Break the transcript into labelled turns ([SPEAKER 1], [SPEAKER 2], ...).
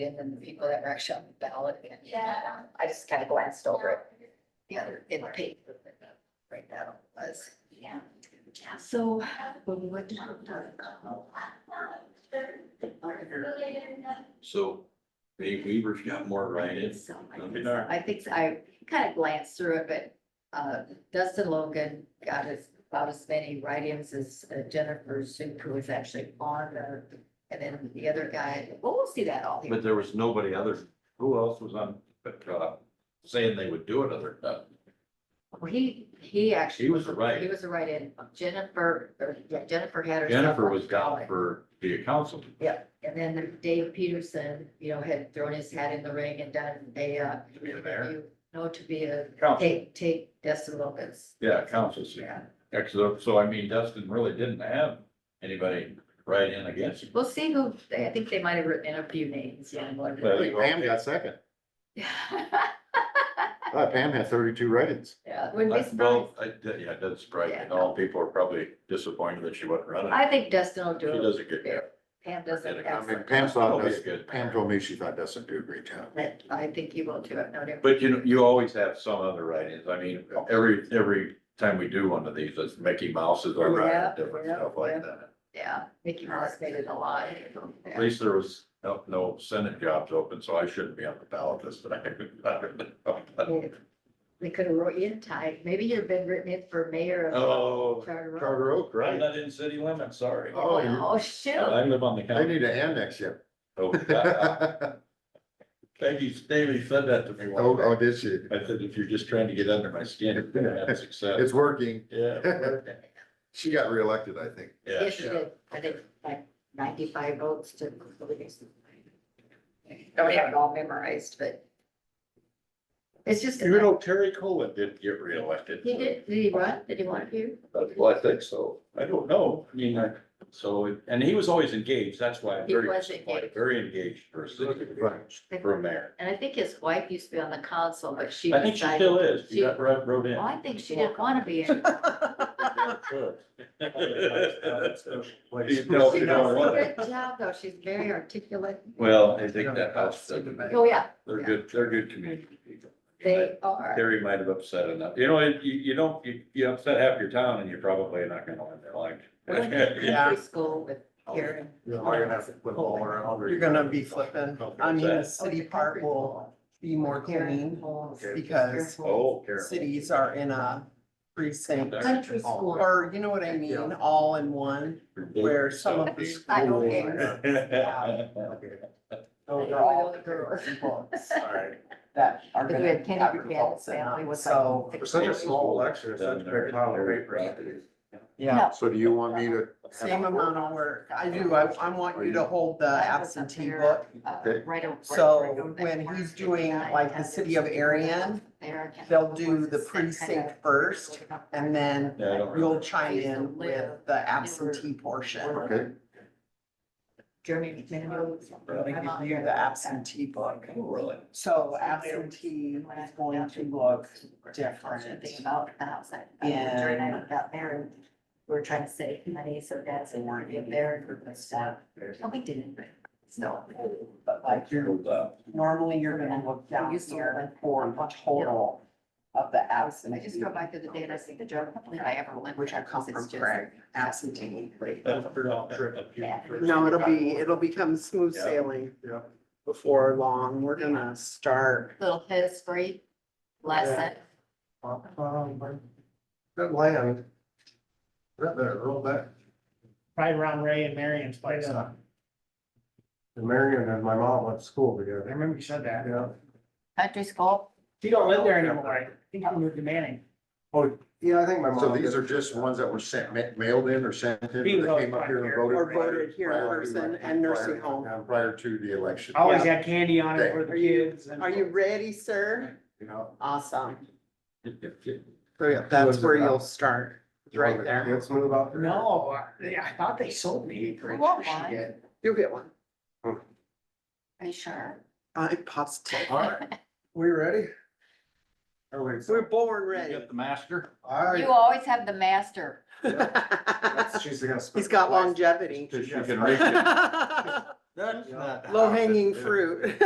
[SPEAKER 1] And then the people that were actually on the ballot. and,
[SPEAKER 2] Yeah.
[SPEAKER 1] I just kind of glanced over it, the other, in the paper. Right now was.
[SPEAKER 2] Yeah.
[SPEAKER 1] So when we went to. the-
[SPEAKER 3] So Dave Weaver's got more write-ins.
[SPEAKER 1] So I
[SPEAKER 3] Don't be
[SPEAKER 1] think-
[SPEAKER 3] darned.
[SPEAKER 1] I think I kind of glanced through it, but uh, Dustin Logan got as, about as many write-ins as uh, Jennifer Sue, who was actually on there. And then the other guy, well, we'll see that all here.
[SPEAKER 3] But there was nobody other, who else was on, but, uh, saying they would do it other than
[SPEAKER 1] Well, He, he actually.
[SPEAKER 3] He was a write-in.
[SPEAKER 1] He was a write-in. Jennifer, or yeah, Jennifer had her.
[SPEAKER 3] Jennifer was down for the council.
[SPEAKER 1] Yep, and then Dave Peterson, you know, had thrown his hat in the ring and done a, uh.
[SPEAKER 3] To be the mayor?
[SPEAKER 1] you know, to be a,
[SPEAKER 3] Council,
[SPEAKER 1] take, take Dustin Logan's.
[SPEAKER 3] yeah, council seat.
[SPEAKER 1] Yeah.
[SPEAKER 3] Excellent. So I mean, Dustin really didn't have anybody write in against him.
[SPEAKER 1] We'll see who, I think they might have written in a few names, yeah.
[SPEAKER 3] Well,
[SPEAKER 4] I think Pam got second. I thought Pam had thirty-two write-ins.
[SPEAKER 1] Yeah, wouldn't be
[SPEAKER 3] I-
[SPEAKER 1] surprised.
[SPEAKER 3] Well, I, did- yeah, it does surprise me.
[SPEAKER 1] Yeah.
[SPEAKER 3] And all people are probably disappointed that she wasn't running.
[SPEAKER 1] I think Dustin will
[SPEAKER 3] She
[SPEAKER 1] do it.
[SPEAKER 3] does a good job.
[SPEAKER 1] Pam does an
[SPEAKER 3] I
[SPEAKER 4] I mean,
[SPEAKER 1] excellent.
[SPEAKER 4] Pam
[SPEAKER 3] She'll
[SPEAKER 4] thought,
[SPEAKER 3] be a
[SPEAKER 4] Dustin-
[SPEAKER 3] good
[SPEAKER 4] Pam told me she thought Dustin did a great job.
[SPEAKER 1] That I think he will too, I've known him.
[SPEAKER 3] But you know, you always have some other write-ins. I mean, every, every time we do one of these, it's Mickey Mouse is over
[SPEAKER 1] Yeah,
[SPEAKER 3] and different
[SPEAKER 1] yeah,
[SPEAKER 3] stuff
[SPEAKER 1] yeah.
[SPEAKER 3] like that.
[SPEAKER 1] Yeah, Mickey Mouse made it a lot.
[SPEAKER 3] At least there was no, no senate jobs open, so I shouldn't be on the ballot this time.
[SPEAKER 1] They could have wrote you in tight. Maybe you'd have been written in for mayor of
[SPEAKER 3] Oh,
[SPEAKER 1] Charter Oak.
[SPEAKER 4] Charter Oak,
[SPEAKER 3] I'm
[SPEAKER 4] right?
[SPEAKER 3] not in city limits, sorry.
[SPEAKER 4] Oh, you-
[SPEAKER 1] Oh, shoot.
[SPEAKER 3] I live on the
[SPEAKER 4] They
[SPEAKER 3] county.
[SPEAKER 4] need to annex you.
[SPEAKER 3] Oh, I- I-
[SPEAKER 4] Oh,
[SPEAKER 3] Peggy Staley said that to me one
[SPEAKER 4] oh,
[SPEAKER 3] day.
[SPEAKER 4] did she?
[SPEAKER 3] I said, if you're just trying to get under my skin, you're gonna have success.
[SPEAKER 4] It's working.
[SPEAKER 3] Yeah.
[SPEAKER 4] She got reelected, I think.
[SPEAKER 3] Yeah.
[SPEAKER 1] Yes, you did. I think like ninety-five votes to. I Don't have it all memorized, but. It's just.
[SPEAKER 3] Even though Terry Colin didn't get reelected.
[SPEAKER 1] He did, did he run? Did he want to?
[SPEAKER 3] Well, I think so. I don't know. I mean, I, so, it- and he was always engaged. That's why I'm
[SPEAKER 1] He
[SPEAKER 3] very,
[SPEAKER 1] was
[SPEAKER 3] disappointed.
[SPEAKER 1] engaged.
[SPEAKER 3] very engaged for a city, for a mayor.
[SPEAKER 1] And I think his wife used to be on the council, but she
[SPEAKER 3] I think she
[SPEAKER 1] decided.
[SPEAKER 3] still is. She
[SPEAKER 1] She-
[SPEAKER 3] got wrote wrote in.
[SPEAKER 1] Well, I think she didn't want to be. in it.
[SPEAKER 3] You know,
[SPEAKER 1] She
[SPEAKER 3] you
[SPEAKER 1] does
[SPEAKER 3] know
[SPEAKER 1] a
[SPEAKER 3] what?
[SPEAKER 1] good job, though. She's very articulate.
[SPEAKER 3] Well, I think that helps. them.
[SPEAKER 1] Oh, yeah,
[SPEAKER 3] They're good, they're good community people.
[SPEAKER 1] they are.
[SPEAKER 3] Terry might have upset enough. You know, it- you, you don't, you, you upset half your town and you're probably not gonna win their
[SPEAKER 1] We're going to
[SPEAKER 3] election.
[SPEAKER 5] Yeah.
[SPEAKER 1] country school with Karen.
[SPEAKER 5] You're gonna be flipping. I mean, the
[SPEAKER 1] Oh, it's
[SPEAKER 5] city
[SPEAKER 1] a
[SPEAKER 5] part
[SPEAKER 1] country
[SPEAKER 5] will
[SPEAKER 1] school.
[SPEAKER 5] be more
[SPEAKER 1] Karen
[SPEAKER 5] clean
[SPEAKER 1] Holmes.
[SPEAKER 5] because
[SPEAKER 3] Oh, Karen.
[SPEAKER 5] cities are in a
[SPEAKER 3] Oh.
[SPEAKER 5] precinct.
[SPEAKER 1] Country
[SPEAKER 5] Oh,
[SPEAKER 1] school.
[SPEAKER 5] Or you know what I mean, all in one, where some of the
[SPEAKER 1] I don't
[SPEAKER 5] schools.
[SPEAKER 1] care.
[SPEAKER 3] Sorry.
[SPEAKER 5] That are
[SPEAKER 1] Because we
[SPEAKER 5] gonna
[SPEAKER 1] had Kenny
[SPEAKER 5] have
[SPEAKER 1] Buchanan's
[SPEAKER 5] results in
[SPEAKER 1] family
[SPEAKER 5] them,
[SPEAKER 1] was
[SPEAKER 5] so,
[SPEAKER 1] like.
[SPEAKER 6] For such a small election, it's such a big pile of paper.
[SPEAKER 5] yeah.
[SPEAKER 4] So do you want me to?
[SPEAKER 5] Same amount of work. I do, I, I want you to hold the uh, absentee book.
[SPEAKER 1] uh,
[SPEAKER 5] So when he's doing like the city of Arian, they'll do the precinct first and then
[SPEAKER 3] Yeah, I don't
[SPEAKER 5] you'll
[SPEAKER 3] remember.
[SPEAKER 5] chime in with the absentee portion.
[SPEAKER 4] Okay.
[SPEAKER 1] Jeremy McMahon.
[SPEAKER 5] They give you the absentee book.
[SPEAKER 3] Oh, Really?
[SPEAKER 5] So absentee is going to look different.
[SPEAKER 1] Thing about the house. I-
[SPEAKER 5] Yeah.
[SPEAKER 1] Jerry and I got married. We were trying to save money, so dad's in there, get married for the stuff. No, we didn't, but so.
[SPEAKER 5] But like you're, normally you're gonna look down here for the total of the
[SPEAKER 1] I just
[SPEAKER 5] absentee.
[SPEAKER 1] go back to the data, I see the job, hopefully I ever live.
[SPEAKER 5] Which I come from Craig, absentee.
[SPEAKER 1] Yeah.
[SPEAKER 5] No, it'll be, it'll become smooth
[SPEAKER 3] Yeah.
[SPEAKER 5] sailing
[SPEAKER 6] Yeah.
[SPEAKER 5] before long. We're gonna start.
[SPEAKER 1] Little history lesson.
[SPEAKER 6] That land. That there, roll back.
[SPEAKER 7] right around Ray and Marion's place. huh?
[SPEAKER 6] And Marion and my mom went to school
[SPEAKER 7] I
[SPEAKER 6] together.
[SPEAKER 7] remember you said that.
[SPEAKER 6] Yeah.
[SPEAKER 1] Country school.
[SPEAKER 7] She don't live there anymore. I think she moved to Manning.
[SPEAKER 6] Oh, Yeah, I think my mom.
[SPEAKER 4] So these are just ones that were sent, ma- mailed in or sent in,
[SPEAKER 7] Being
[SPEAKER 4] that came up here and voted.
[SPEAKER 5] Or voted here in
[SPEAKER 4] prior to-
[SPEAKER 5] person and nursing home.
[SPEAKER 4] prior- Prior to the election.
[SPEAKER 7] I Always had candy on it for the
[SPEAKER 5] Are you-
[SPEAKER 7] kids. and-
[SPEAKER 5] Are you ready, sir?
[SPEAKER 6] You know,
[SPEAKER 5] Awesome.
[SPEAKER 3] Well,
[SPEAKER 5] So yeah, that's where you'll start, right there.
[SPEAKER 6] Let's move out. there.
[SPEAKER 7] No, I I thought they sold me.
[SPEAKER 1] I want one.
[SPEAKER 5] You'll get one.
[SPEAKER 1] Are you sure?
[SPEAKER 5] I'm positive.
[SPEAKER 6] All right, we ready? Oh, wait, so,
[SPEAKER 5] We're born
[SPEAKER 3] You
[SPEAKER 5] ready.
[SPEAKER 3] got the master?
[SPEAKER 6] all right.
[SPEAKER 1] You always have the master.
[SPEAKER 6] That's- she's gonna spend
[SPEAKER 5] He's got
[SPEAKER 6] the last-
[SPEAKER 5] longevity.
[SPEAKER 3] She
[SPEAKER 6] She
[SPEAKER 3] can
[SPEAKER 6] can
[SPEAKER 3] reach it.
[SPEAKER 5] That's
[SPEAKER 2] That's not.
[SPEAKER 5] Low hanging fruit.